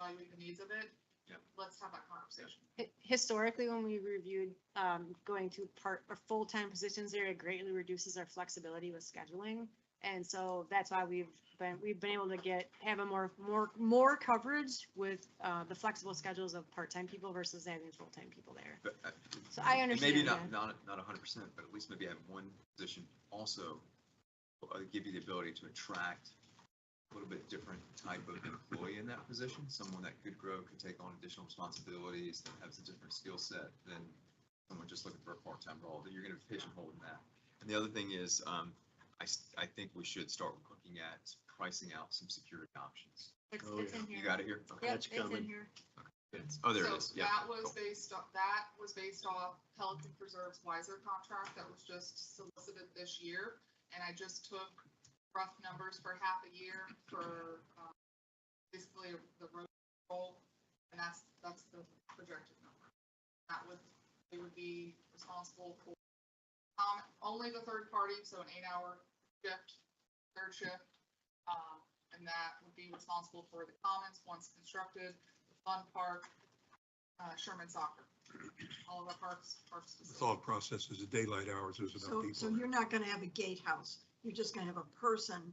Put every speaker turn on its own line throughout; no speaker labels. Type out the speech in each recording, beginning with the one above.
evaluate the needs of it.
Yeah.
Let's have that conversation.
Hi- Historically, when we reviewed um, going to part or full-time positions there, it greatly reduces our flexibility with scheduling. And so that's why we've been, we've been able to get, have a more, more, more coverage with uh, the flexible schedules of part-time people versus having full-time people there.
But, uh,
So I
and
understand.
Maybe not,
that.
not, not a hundred percent, but at least maybe have one position also uh, give you the ability to attract a little bit different type of employee in that position, someone that could grow, could take on additional responsibilities, that has a different skill set than someone just looking for a part-time role, that you're gonna pigeonhole in that. And the other thing is, um, I, s- I think we should start looking at pricing out some security options.
It's,
Oh,
it's
yeah.
in
You
here.
got it here? Okay.
Yep,
That's
it's in
coming.
here.
It's- Oh, there it is,
So
yeah.
That was
cool.
based off, that was based off Pelican Preserve's Wiser contract that was just solicited this year. And I just took rough numbers for half a year for um, basically the road roll. And that's, that's the projected number. That would, they would be responsible for um, only the third party, so an eight-hour shift, third shift. Um, And that would be responsible for the commons once constructed, the fun park, uh, Sherman Soccer. All of our parks, parks.
The thought process is the daylight hours, there's enough
So,
people.
so
there.
you're not gonna have a gatehouse, you're just gonna have a person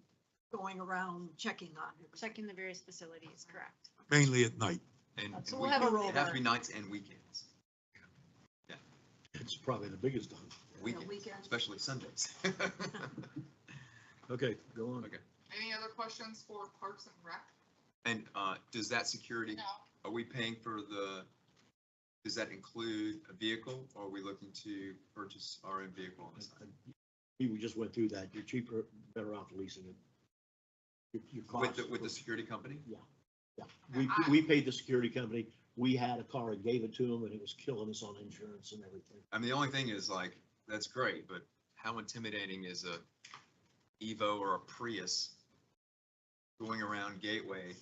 going around checking on it.
Checking the various facilities, correct.
Mainly at night.
And and
So
we-
we'll have a
It has to be
rollback.
nights and weekends,
It's probably the biggest one.
weekends,
weekends.
especially Sundays.
Okay, go on.
Okay.
Any other questions for Parks and Rec?
And uh, does that security, are we paying for the, does that include a vehicle? Or are we looking to purchase our own vehicle on the side?
We we just went through that. You're cheaper, better off leasing it. Your- Your
With
cost.
the, with the security company?
We, we paid the security company. We had a car and gave it to them and it was killing us on insurance and everything.
I mean, the only thing is like, that's great, but how intimidating is a Evo or a Prius going around Gateway?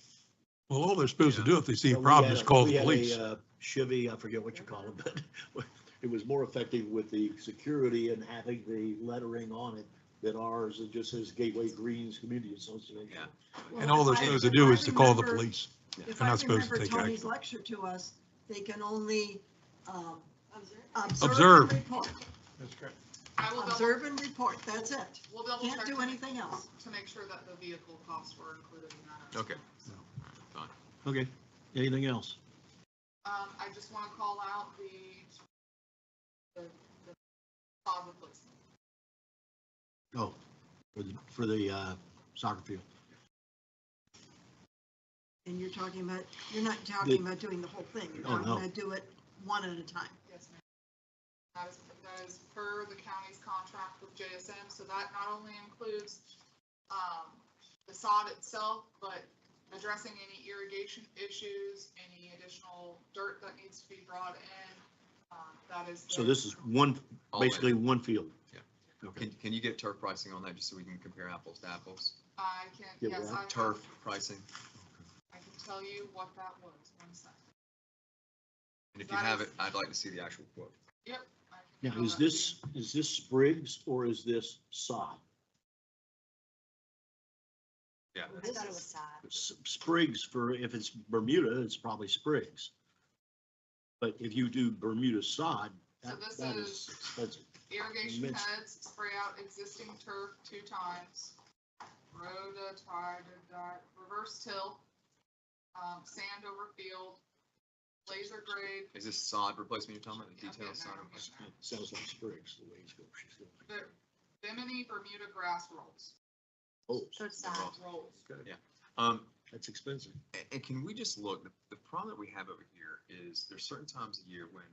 Well, all they're supposed to do if they see a
But we
problem
had
is
a-
call
we
the
had a,
police.
uh, Chevy, I forget what you call it, but it was more effective with the security and having the lettering on it than ours. It just says Gateway Greens Community Association.
Yeah.
Well,
And all they're
if I-
supposed to
if
do
I
is to call the
remember-
police.
If
They're
I
not supposed to
remember
take action.
Tony's lecture to us, they can only, um, observe
Observe.
and report.
That's correct.
I will double,
Observe and report, that's it.
we'll double check
Can't do
to
anything else.
make sure that the vehicle costs were included in that.
Okay.
Okay, anything else?
Um, I just want to call out the, the, the pod replacement.
Oh, for the, for the uh, soccer field.
And you're talking about, you're not talking about doing the whole thing. You're
Oh,
talking
no.
about do it one at a time.
Yes, ma'am. That is, that is per the county's contract with JSM, so that not only includes, um, the sod itself, but addressing any irrigation issues, any additional dirt that needs to be brought in, um, that is.
So
the-
this is one,
All in.
basically one field.
Yeah.
Okay.
Can, can you get turf pricing on that just so we can compare apples to apples?
I can,
Yeah,
yes,
we're on
I. have-
Turf pricing?
I can tell you what that was, one second.
And if you have it, I'd like to see the actual quote.
Yep. I can
Now,
tell
is
that to you.
this, is this Sprigs or is this sod?
Yeah.
I thought it was sad.
S- Sprigs for, if it's Bermuda, it's probably Sprigs. But if you do Bermuda sod,
So
that,
this
that
is-
is expensive.
Irrigation
Mix.
heads, spray out existing turf two times. Rototide, reverse till, um, sand over field, laser grade.
Is this sod replacement you're talking about, the
Yeah, I'm
detailed
getting
sod
there, I'm
replacement?
getting there.
It Sounds like Sprigs, the way it's going. She's going like
The Bimini Bermuda grass rolls,
So
Oh,
it's sad.
rolls.
Um,
that's expensive.
and, and can we just look, the, the problem that we have over here is there's certain times a year when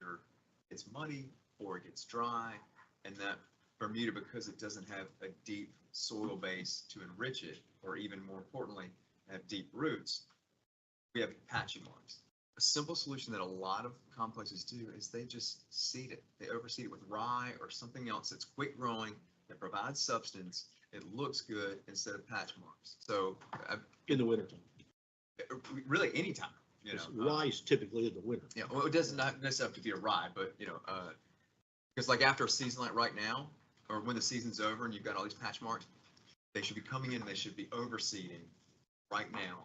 there, it's muddy or it gets dry and that Bermuda, because it doesn't have a deep soil base to enrich it, or even more importantly, have deep roots, we have patchy marks. A simple solution that a lot of complexes do is they just seed it. They overseed it with rye or something else that's quick growing, that provides substance, it looks good instead of patch marks. So, I,
In the wintertime.
really anytime, you know. uh,
Rye is typically in the winter.
Yeah, well, it doesn't not necessarily have to be a rye, but you know, uh, because like after a season like right now, or when the season's over and you've got all these patch marks, they should be coming in, they should be overseeding right now